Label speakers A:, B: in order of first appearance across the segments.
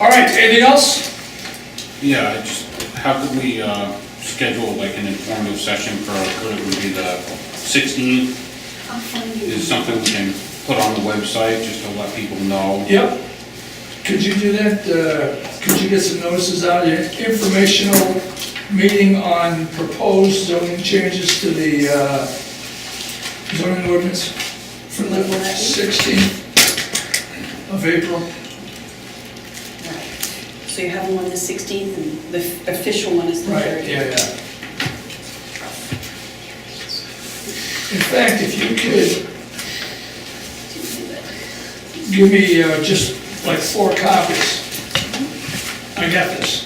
A: All right, anything else?
B: Yeah, I just, how could we uh, schedule like an informative session for, could it would be the 16th?
C: I'll find you.
B: Is something we can put on the website just to let people know?
A: Yep. Could you do that, uh, could you get some notices out, your informational meeting on proposed zoning changes to the uh, zoning ordinance for the 16th of April?
C: Right. So you have one the 16th, and the official one is the 30th.
A: Right, yeah, yeah. In fact, if you could give me uh, just like four copies. I got this.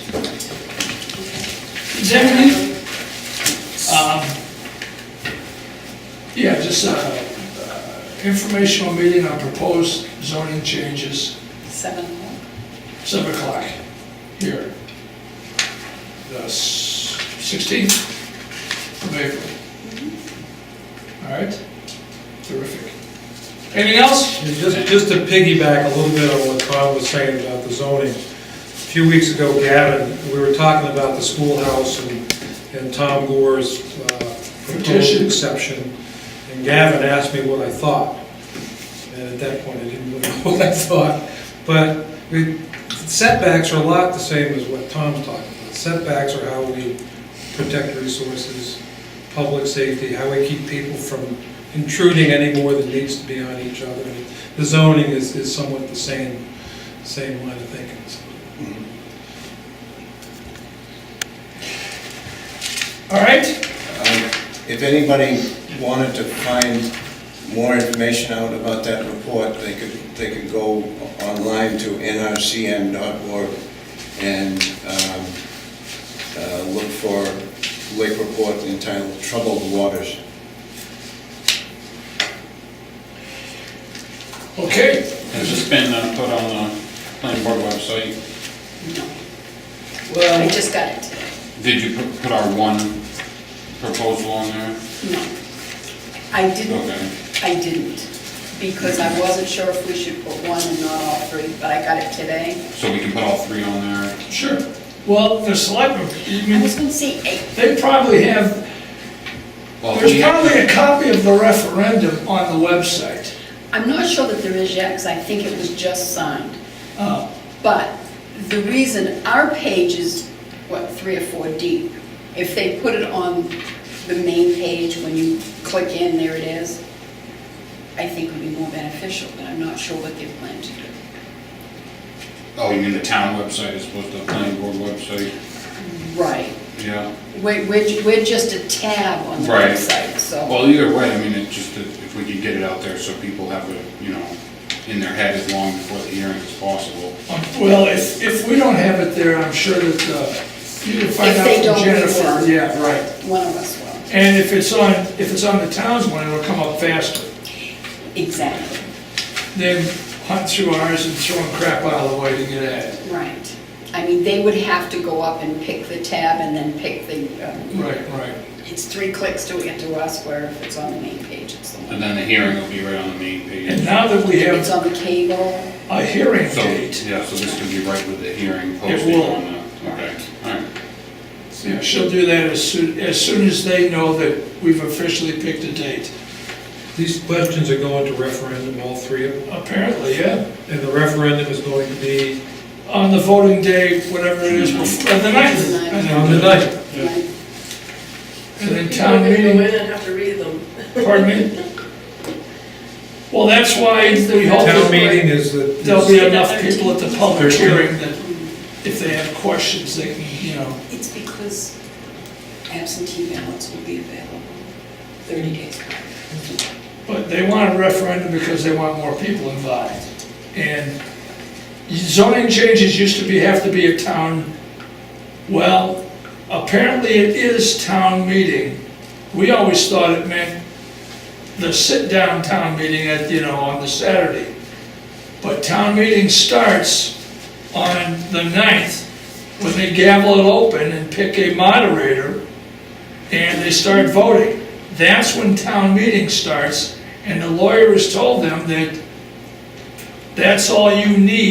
A: Is that right? Um, Yeah, just uh, uh, informational meeting on proposed zoning changes,
C: Seven o'clock.
A: 7 o'clock here. The s- 16th of April. All right? Terrific. Anything else?
D: And Just, just to piggyback a little bit on what Tom was saying about the zoning, a few weeks ago, Gavin, we were talking about the schoolhouse and, and Tom Gore's uh, proposed
A: Petition.
D: exception, and Gavin asked me what I thought, and at that point, I didn't really know what I thought, but we- setbacks are a lot the same as what Tom's talking about. Setbacks are how we protect resources, public safety, how we keep people from intruding any more than needs to be on each other. The zoning is, is somewhat the same, same line of thinking.
A: All right?
E: Um, If anybody wanted to find more information out about that report, they could, they could go online to nrcm.org and um, uh, look for Lake Report entitled Troubled Waters.
A: Okay,
B: Has this been uh, put on the planning board website?
C: I
A: well,
C: just got it today.
B: Did you put- put our one proposal on there?
C: No. I didn't,
B: Okay.
C: I didn't, because I wasn't sure if we should put one and not all three, but I got it today.
B: So we can put all three on there?
A: sure. Well, the selectmen, I
C: I
A: mean,
C: was gonna say eight.
A: they probably have,
B: Well,
A: there's
B: we have-
A: probably a copy of the referendum on the website.
C: I'm not sure that there is yet, because I think it was just signed.
A: Uh,
C: But the reason our page is, what, three or four deep, if they put it on the main page, when you click in, there it is, I think would be more beneficial, but I'm not sure what they plan to do.
B: Oh, you mean the town website as opposed to the planning board website?
C: Right.
B: Yeah.
C: We're, we're we're just a tab on the
B: Right.
C: website, so.
B: Well, either way, I mean, it just, if we could get it out there so people have it, you know, in their head as long before the hearing as possible.
A: um, Well, if, if we don't have it there, I'm sure that, uh, you can find
C: If
A: out
C: they
A: from
C: don't, we
A: Jennifer.
C: will.
A: Yeah, right.
C: One of us will.
A: And if it's on, if it's on the town's one, it'll come up faster
C: Exactly,
A: than hunt through ours and throwing crap out of the way to get at it.
C: right. I mean, they would have to go up and pick the tab and then pick the, um,
A: Right, right.
C: it's three clicks to get to us, where if it's on the main page, it's the one.
B: And then the hearing will be right on the main
A: And
B: page.
A: now that we
C: It's
A: have
C: on the cable.
A: a hearing
B: So,
A: date,
B: yeah, so this could be right with the hearing posted
A: will.
B: on the, okay, all right.
A: yeah, she'll do that as soon, as soon as they know that we've officially picked a date.
D: These questions are going to referendum, all three of them,
A: Apparently, yeah.
D: and the referendum is going to be
A: on the voting day, whatever it is, before the ninth.
D: on the night.
C: Right.
A: And then town
F: People
A: meeting,
F: are gonna go in and have to read them.
A: pardon me? Well, that's why we hope
D: Town
A: that
D: meeting is the.
A: there'll be enough people at the public hearing that if they have questions, they can, you know.
C: It's because absentee ballots will be available 30 days prior.
A: But they want a referendum because they want more people involved. And zoning changes used to be, have to be a town, well, apparently it is town meeting. We always thought it meant the sit-down town meeting at, you know, on the Saturday. But town meeting starts on the 9th, when they gavel it open and pick a moderator, and they start voting. That's when town meeting starts, and the lawyer has told them that that's all you need